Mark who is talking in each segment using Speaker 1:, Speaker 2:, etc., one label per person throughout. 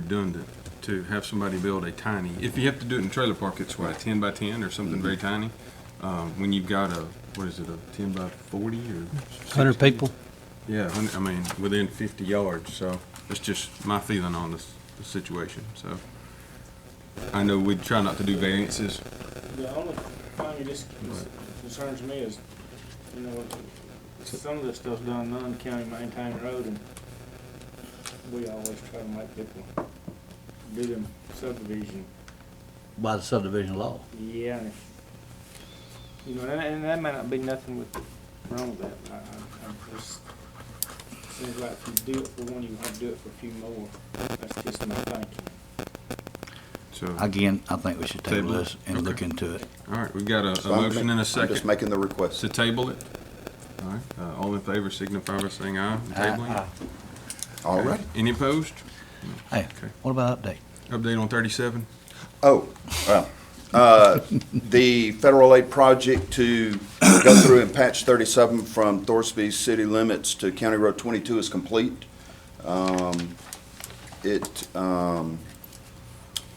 Speaker 1: redundant to have somebody build a tiny, if you have to do it in a trailer park, it's what, ten by ten or something
Speaker 2: Mm-hmm.
Speaker 1: very tiny? Um, when you've got a, what is it, a ten by forty or?
Speaker 3: 100
Speaker 1: 60?
Speaker 3: people?
Speaker 1: Yeah, hun- I mean, within fifty yards, so that's just my feeling on this, the situation, so. I know we try not to do variances,
Speaker 4: The only thing that just concerns me is, you know, some of this stuff's done non-county maintained road, and we always try to make people do them subdivision.
Speaker 5: by the subdivision law.
Speaker 4: Yeah. and if- You know, and, and that may not be nothing with, wrong with that, but I, I, I just, seems like if you do it for one, you have to do it for a few more. That's just my thinking.
Speaker 1: so, all
Speaker 5: Again, I think we should table
Speaker 1: Table it.
Speaker 5: this and look
Speaker 1: Okay.
Speaker 5: into it.
Speaker 1: right, we've got a,
Speaker 2: So
Speaker 1: a
Speaker 2: I'm
Speaker 1: motion
Speaker 2: ma-
Speaker 1: and a
Speaker 2: I'm just
Speaker 1: second
Speaker 2: making the request.
Speaker 1: to table it. All right, uh, all in favor signify by saying aye, and tabling. it.
Speaker 2: All
Speaker 1: Okay.
Speaker 2: right.
Speaker 1: Any opposed?
Speaker 5: Hey,
Speaker 1: Okay.
Speaker 5: what about update?
Speaker 1: Update on thirty-seven?
Speaker 2: Oh, well, uh, the federal aid project to go through and patch 37 from Thorsby city limits to County Road 22 is complete. Um, It um,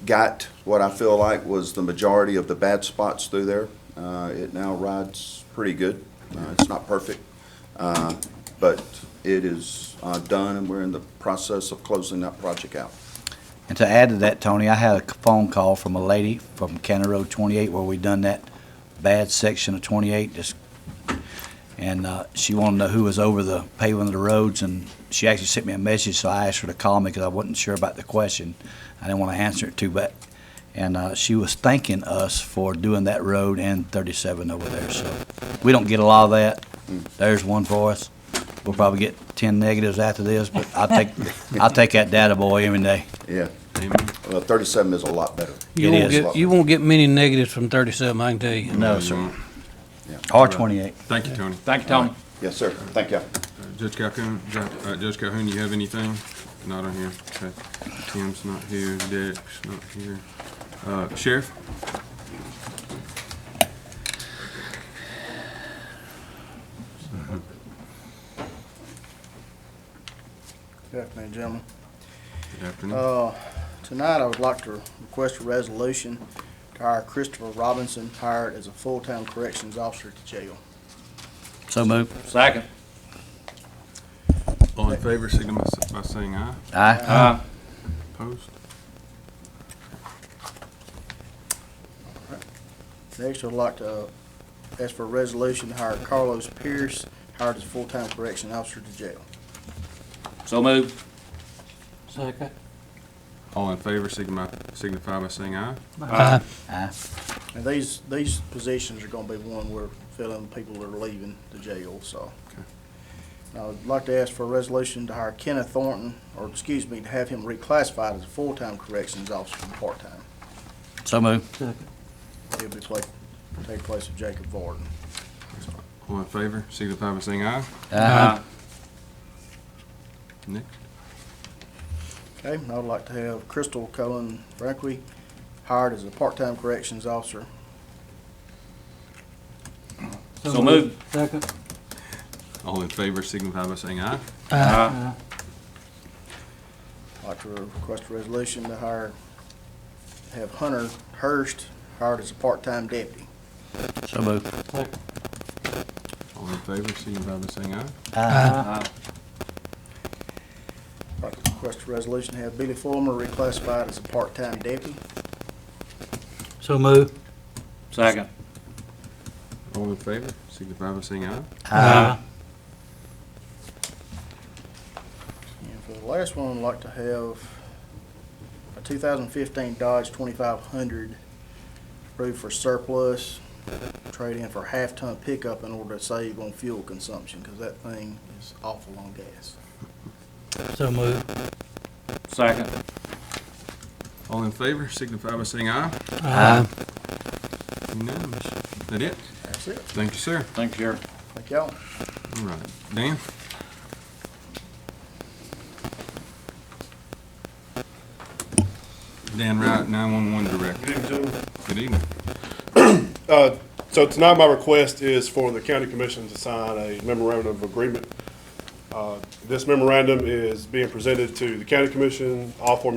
Speaker 2: got what I feel like was the majority of the bad spots through there. Uh, It now rides pretty good. Uh, It's not perfect, uh, but it is uh, done, and we're in the process of closing that project out.
Speaker 5: And to add to that, Tony, I had a phone call from a lady from County Road 28 where we done that bad section of 28, just, and uh, she wanted to know who was over the paving of the roads, and she actually sent me a message, so I asked her to call me because I wasn't sure about the question. I didn't want to answer it too bad. And uh, she was thanking us for doing that road and 37 over there, so we don't get a lot of that. There's one for us. We'll probably get 10 negatives after this, but I'll take, I'll take that data boy every day.
Speaker 2: Yeah.
Speaker 1: Amen.
Speaker 2: Well, 37 is a lot better.
Speaker 5: It
Speaker 3: You won't
Speaker 5: is.
Speaker 3: get, you won't get many negatives from 37, I can tell you.
Speaker 5: No, sir. R twenty-eight.
Speaker 1: Thank you, Tony.
Speaker 6: Thank you, Tony.
Speaker 2: Yes, sir. Thank you.
Speaker 1: Uh, Judge Calhoun, Ju- uh, Judge Calhoun, you have anything? Not on here. Okay. Tim's not here, Derek's not here. Uh, Sheriff?
Speaker 7: Good afternoon, gentlemen.
Speaker 1: Good afternoon.
Speaker 7: Uh, Tonight, I would like to request a resolution to hire Christopher Robinson, hired as a full-time corrections officer to jail.
Speaker 5: So moved.
Speaker 6: Second.
Speaker 1: All in favor, signify s- by saying aye.
Speaker 5: Aye.
Speaker 6: Uh,
Speaker 1: Opposed?
Speaker 7: Next, I would like to ask for a resolution to hire Carlos Pierce, hired as a full-time correction officer to jail.
Speaker 6: so moved.
Speaker 3: Second.
Speaker 1: All in favor, signify, signify by saying aye.
Speaker 3: Aye.
Speaker 5: Aye.
Speaker 7: And these, these positions are gonna be one we're filling people that are leaving the jail, so.
Speaker 1: Okay.
Speaker 7: And I would like to ask for a resolution to hire Kenneth Thornton, or excuse me, to have him reclassified as a full-time corrections officer from part-time.
Speaker 5: So moved.
Speaker 7: He'll be pla- take place of Jacob Varden.
Speaker 1: All in favor, signify by saying aye.
Speaker 5: Aye.
Speaker 1: Next.
Speaker 7: Okay, and I would like to have Crystal Cullen Franklin hired as a part-time corrections officer.
Speaker 6: So moved.
Speaker 3: Second.
Speaker 1: All in favor, signify by saying aye.
Speaker 6: Uh,
Speaker 7: I'd like to request a resolution to hire, have Hunter Hurst hired as a part-time deputy.
Speaker 5: So moved.
Speaker 1: All in favor, signify by saying aye.
Speaker 5: Aye.
Speaker 7: I'd like to request a resolution to have Billy Fulmer reclassified as a part-time deputy.
Speaker 3: So moved.
Speaker 6: second.
Speaker 1: All in favor, signify by saying aye.
Speaker 5: Aye.
Speaker 7: And for the last one, I'd like to have a 2015 Dodge 2500 approved for surplus, trade in for half-ton pickup in order to save on fuel consumption, because that thing is awful on gas.
Speaker 3: So moved.
Speaker 6: Second.
Speaker 1: All in favor, signify by saying aye.
Speaker 3: Aye.
Speaker 1: Unanimous. That it?
Speaker 7: That's it.
Speaker 1: Thank you, sir.
Speaker 6: Thank you, Sheriff.
Speaker 7: Thank y'all.
Speaker 1: All right. Dan? Dan Wright, 911 Director.
Speaker 8: Good evening, gentlemen.
Speaker 1: Good evening.
Speaker 8: Uh, So tonight, my request is for the county commission to sign a memorandum of agreement. Uh, This memorandum is being presented to the county commission, all four